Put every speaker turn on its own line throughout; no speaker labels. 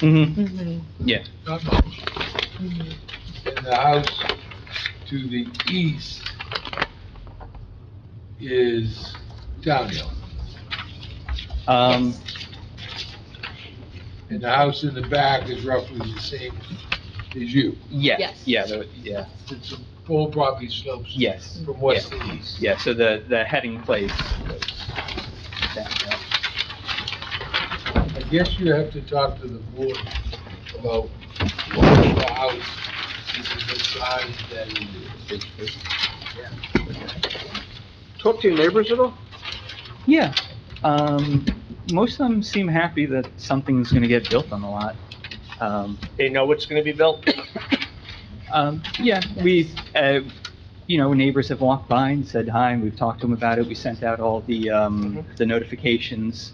Mm-hmm.
not much.
mm-hmm.
And the house to the east is downhill.
Mm-hmm.
Um,
And the house in the back is roughly the same as you.
yeah,
Yes.
yeah, there- yeah,
It's a full property slopes
yes,
from west to east.
yeah, so the, the heading place was down there.
I guess you have to talk to the board about what the house is the size that it is.
Talk to your neighbors at all?
Yeah, um, most of them seem happy that something's gonna get built on the lot. Um,
They know what's gonna be built?
Um, yeah, we, uh, you know, neighbors have walked by and said hi, and we've talked to them about it. We sent out all the, um,
Mm-hmm.
the notifications.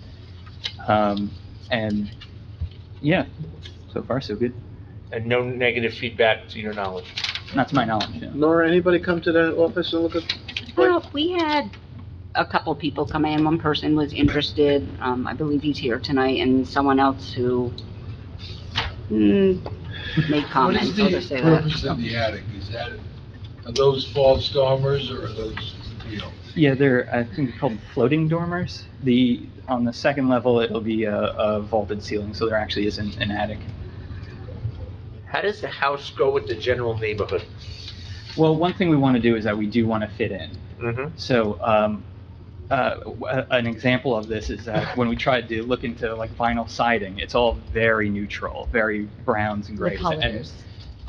Um, and, yeah, so far, so good.
And no negative feedback to your knowledge?
Not to my knowledge, yeah.
Nora, anybody come to the office and look at?
Well, we had a couple people come in. One person was interested, um, I believe he's here tonight, and someone else who, mm, made
What is
comments, I'll just
the
say that.
purpose of the attic? Is that, are those fall stormers or are those, you know?
Yeah, they're, I think they're called floating dormers. The, on the second level, it'll be a, a vaulted ceiling, so there actually isn't an attic.
How does the house go with the general neighborhood?
Well, one thing we want to do is that we do want to fit in.
Mm-hmm.
So, um, uh, w- a- an example of this is that when we tried to look into like vinyl siding, it's all very neutral, very browns and
The
grays. And,
colors.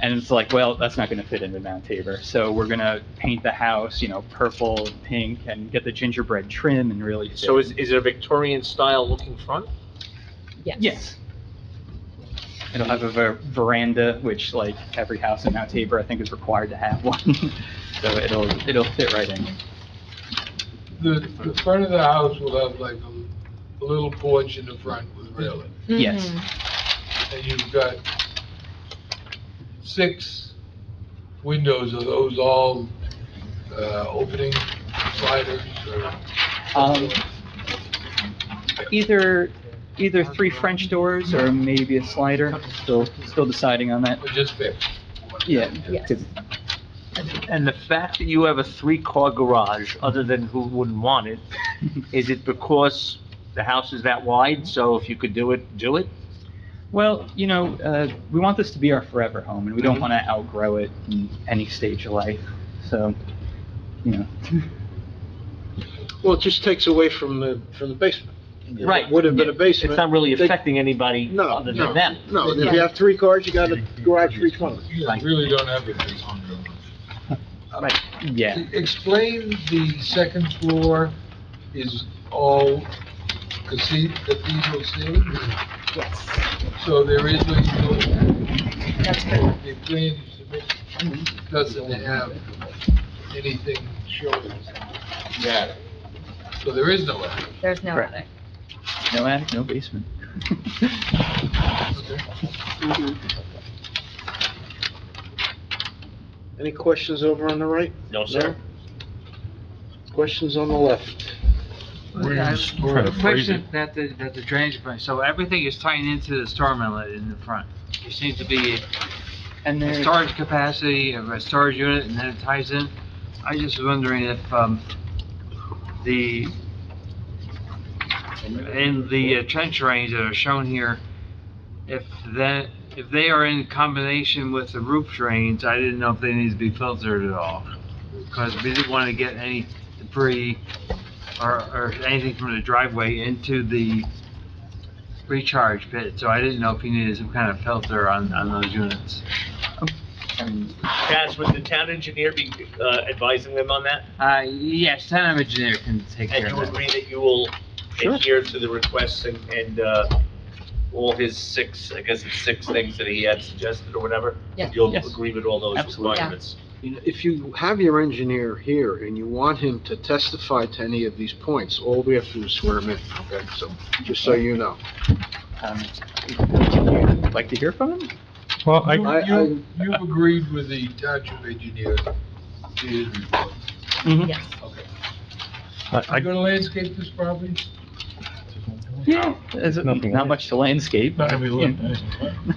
and it's like, well, that's not gonna fit into Mount Tabor. So we're gonna paint the house, you know, purple, and pink, and get the gingerbread trim and really. fit
So is,
in.
is it a Victorian style looking front?
Yes.
Yes. It'll have a ver- veranda, which like every house in Mount Tabor, I think is required to have one. So it'll, it'll fit right in.
The, the front of the house will have like a, a little porch in the front with railing.
Yes.
Mhm.
And you've got six windows. Are those all, uh, opening sliders or?
Um, either, either three French doors or maybe a slider, still, still deciding on that.
Or just fixed?
Yeah.
Yes.
could-
And the fact that you have a three-car garage, other than who wouldn't want it, is it because the house is that wide, so if you could do it, do it?
Well, you know, uh, we want this to be our forever home and we don't
Mhm.
want to outgrow it in any stage of life, so, you know.
Well, it just takes away from the, from the basement. If it
Right.
Would have been a basement.
It's not really
they-
affecting anybody
No,
other
no.
than them.
No, and if you have three cars, you got a garage for each one.
You really don't have a basement.
Right.
Yeah,
E, Explain the second floor is all cathe- cathedral ceiling?
Yes,
So there is what you do.
that's correct.
The plan you submitted doesn't have anything showing that. So there is no attic.
There's no
Correct.
attic.
no attic, no basement.
Mhm.
Any questions over on the right?
No,
sir. Questions on the left?
Question that the, that the drainage plan, so everything is tying into the storm inlet in the front. There seems to be
And
a
there's,
storage capacity of a storage unit and then it ties in. I just was wondering if, um, the, in the uh, trench drains that are shown here, if that, if they are in combination with the roof drains, I didn't know if they need to be filtered at all. Because we didn't want to get any debris or, or anything from the driveway into the recharge pit. So I didn't know if you needed some kind of filter on, on those units.
and
Chaz, would the town engineer be uh, advising them on that?
Uh, yes, town engineer can take
And
care
you
of that.
agree that you will
Sure.
adhere to the requests and, and, uh, all his six, I guess it's six things that he had suggested or whatever?
Yeah.
You'll
Yes.
agree with all those
Absolutely.
Yeah.
requirements?
You know, If you have your engineer here and you want him to testify to any of these points, all we have to do is swear him in, okay? So, just so you know.
um, would you like to hear from him?
Well, I.
I-
You, you've agreed with the township engineer to his report.
Yes.
Mm-hmm.
You gonna landscape this property?
Yeah, there's
Nothing
not
else.
much to landscape.
Not every
Yeah.
look.